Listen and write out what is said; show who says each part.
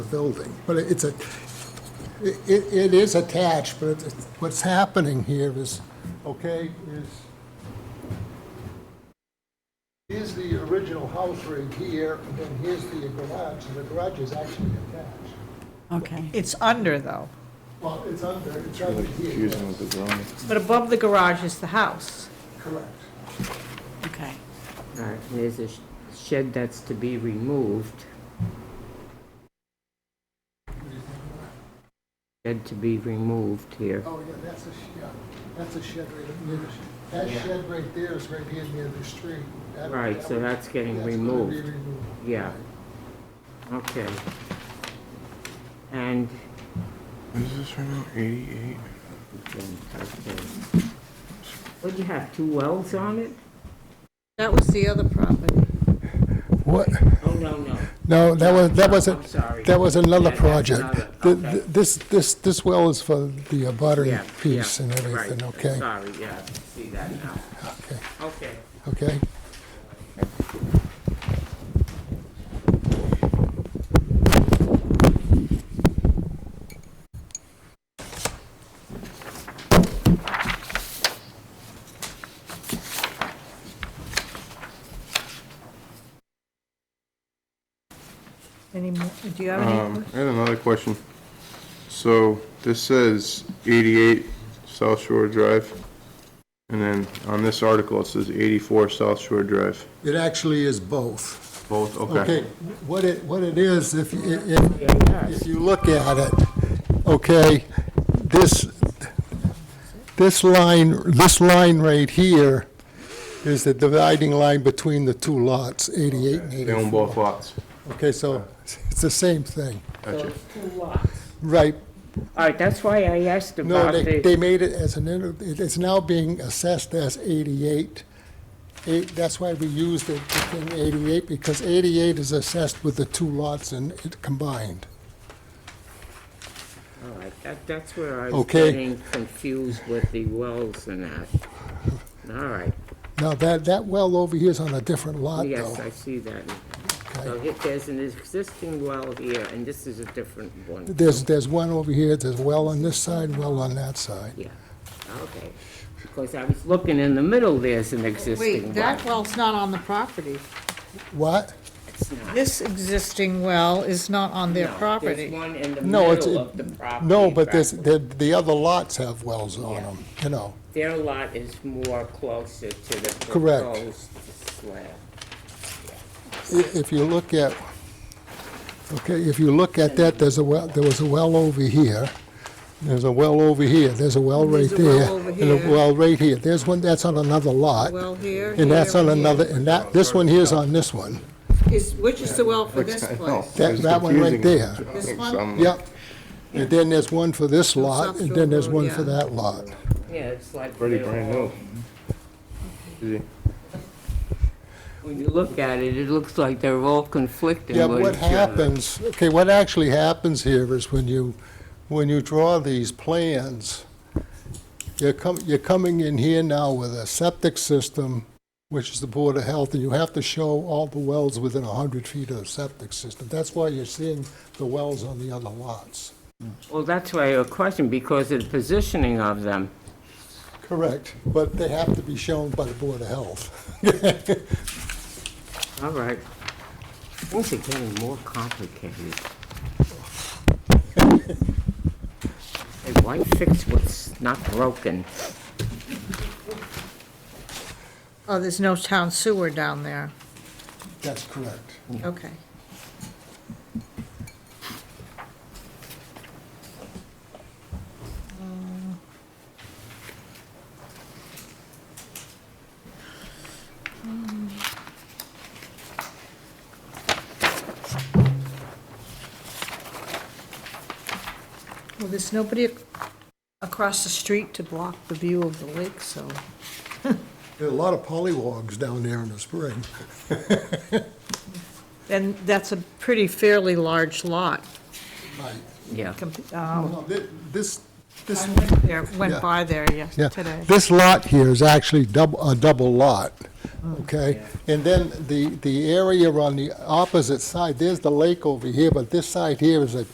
Speaker 1: building. But it- it's a, it, it it is attached, but it's, what's happening here is, okay, is, here's the original house right here, and then here's the garage, and the garage is actually attached.
Speaker 2: Okay.
Speaker 3: It's under, though.
Speaker 1: Well, it's under, it's under
Speaker 4: Really
Speaker 1: here,
Speaker 4: confusing with the drawing.
Speaker 3: But above the garage is the house.
Speaker 1: correct.
Speaker 2: Okay.
Speaker 5: All right, Uh, there's a sh- shed that's to be removed. Shed to be removed here.
Speaker 1: Oh, yeah, that's a, sh- yeah, that's a shed right up near the, sh- that shed right there is right here near the street. That-
Speaker 5: Right,
Speaker 1: that
Speaker 5: so
Speaker 1: would-
Speaker 5: that's getting
Speaker 1: that's gonna be
Speaker 5: removed.
Speaker 1: removed.
Speaker 5: Yeah. Okay. And,
Speaker 4: What is this right now, 88?
Speaker 5: okay, okay. What'd you have, two wells on it?
Speaker 3: That was the other property.
Speaker 1: What?
Speaker 5: Oh, no, no.
Speaker 1: No, that was, that
Speaker 5: No, I'm
Speaker 1: wasn't,
Speaker 5: sorry.
Speaker 1: that was
Speaker 5: Yeah,
Speaker 1: another
Speaker 5: that's another,
Speaker 1: project. Th-
Speaker 5: okay.
Speaker 1: th- This, this, this well is for the abutting
Speaker 5: Yeah,
Speaker 1: piece
Speaker 5: yeah,
Speaker 1: and
Speaker 5: right,
Speaker 1: everything, okay?
Speaker 5: Sorry, yeah, see that now.
Speaker 1: Okay,
Speaker 5: Okay.
Speaker 1: okay?
Speaker 3: Any more, do you have
Speaker 4: Um,
Speaker 3: any?
Speaker 4: I had another question. So this says 88 South Shore Drive, and then on this article, it says 84 South Shore Drive.
Speaker 1: It actually is both.
Speaker 4: Both,
Speaker 1: Okay,
Speaker 4: okay.
Speaker 1: what it, what it is, if, you- if,
Speaker 5: Yeah, yeah.
Speaker 1: if you look at it, okay, this, this line, this line right here is the dividing line between the two lots, 88 and
Speaker 4: They own
Speaker 1: 84.
Speaker 4: both lots.
Speaker 1: Okay, so it's the same thing,
Speaker 5: So
Speaker 4: Gotcha.
Speaker 5: it's two lots.
Speaker 1: right?
Speaker 5: All right, that's why I asked
Speaker 1: No,
Speaker 5: about
Speaker 1: they, they
Speaker 5: the,
Speaker 1: made it as an, inter- it- it's now being assessed as 88. Eight, that's why we used it, the thing 88, because 88 is assessed with the two lots and it combined.
Speaker 5: all right, that, that's where I was
Speaker 1: Okay.
Speaker 5: getting confused with the wells and that. All right,
Speaker 1: Now, that, that well over here is on a different lot,
Speaker 5: yes,
Speaker 1: though.
Speaker 5: I see that. So
Speaker 1: okay?
Speaker 5: if there's an existing well here, and this is a different one,
Speaker 1: There's, there's one over here, there's well on this side, well on that side.
Speaker 5: yeah, okay. Because I was looking in the middle, there's an existing
Speaker 3: Wait, that
Speaker 5: well.
Speaker 3: well's not on the property.
Speaker 1: What?
Speaker 5: It's not.
Speaker 3: This existing well is not on their
Speaker 5: No, There's
Speaker 3: property.
Speaker 5: one in the
Speaker 1: No, it's,
Speaker 5: middle of the property.
Speaker 1: no, but
Speaker 5: this
Speaker 1: there's, the, the other lots have wells on them, you know.
Speaker 5: Their lot is more closer to the
Speaker 1: Correct.
Speaker 5: proposed slab.
Speaker 1: I- If you look at, okay, if you look at that, there's a well, there was a well over here, there's a well over here, there's a well right
Speaker 3: There's a well
Speaker 1: there.
Speaker 3: over
Speaker 1: And a
Speaker 3: here.
Speaker 1: well right here, there's one that's on another lot,
Speaker 3: Well here,
Speaker 1: and that's
Speaker 3: here,
Speaker 1: on
Speaker 3: here.
Speaker 1: another, and that, this one here's on this one,
Speaker 3: Is, which is the well for this place?
Speaker 1: that,
Speaker 4: It's
Speaker 1: that one right
Speaker 4: confusing. um,
Speaker 1: there.
Speaker 3: This
Speaker 4: So
Speaker 3: one?
Speaker 4: I'm like,
Speaker 1: Yep, and then there's one for this lot, and then there's one for
Speaker 3: Shore Road,
Speaker 1: that lot.
Speaker 5: Yeah, it's like.
Speaker 4: Pretty
Speaker 5: they're
Speaker 4: brand
Speaker 5: all-
Speaker 4: new. Easy.
Speaker 5: When you look at it, it looks like they're all conflicting
Speaker 1: Yeah,
Speaker 5: with
Speaker 1: what
Speaker 5: each other.
Speaker 1: happens, okay, what actually happens here is when you, when you draw these plans, you're com, you're coming in here now with a septic system, which is the Board of Health, and you have to show all the wells within hundred feet of the septic system. That's why you're seeing the wells on the other lots.
Speaker 5: Well, that's why your question, because of the positioning of them.
Speaker 1: Correct, but they have to be shown by the Board of Health.
Speaker 5: All right. Things are getting more complicated. Hey, why fix what's not broken?
Speaker 3: Oh, there's no town sewer down there.
Speaker 1: That's correct.
Speaker 3: Okay. Well, there's nobody ac- across the street to block the view of the lake, so.
Speaker 1: There are a lot of polywogs down there in the spring.
Speaker 3: And that's a pretty fairly large lot.
Speaker 1: Right.
Speaker 5: Yeah.
Speaker 3: comp- um,
Speaker 1: Well, thi- This,
Speaker 3: I went there, went by there yes,
Speaker 1: Yeah,
Speaker 3: today.
Speaker 1: this lot here is actually double, a double lot,
Speaker 3: Mm.
Speaker 1: okay? And then the, the area on the opposite side, there's the lake over here, but this side here is a